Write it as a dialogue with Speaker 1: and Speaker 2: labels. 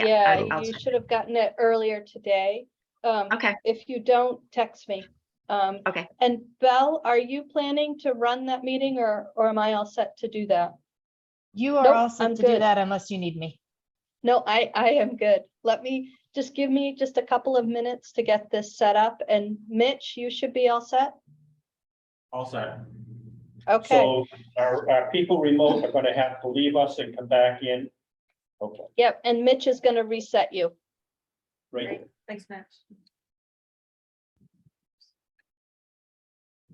Speaker 1: Yeah,
Speaker 2: I- I'll
Speaker 1: you
Speaker 2: send-
Speaker 1: should have gotten it earlier today. Um,
Speaker 2: Oh. Okay.
Speaker 1: If you don't, text me. Um,
Speaker 2: Okay.
Speaker 1: And Belle, are you planning to run that meeting or, or am I all set to do that?
Speaker 3: You
Speaker 1: Nope,
Speaker 3: are all
Speaker 1: I'm
Speaker 3: set to
Speaker 1: good.
Speaker 3: do that unless you need me.
Speaker 1: No, I, I am good. Let me, just give me just a couple of minutes to get this set up and Mitch, you should be all set?
Speaker 4: All set.
Speaker 1: Okay,
Speaker 4: So our, our people remote are gonna have to leave us and come back in. Okay,
Speaker 1: yep, and Mitch is gonna reset you.
Speaker 4: great.
Speaker 5: Thanks, Mitch.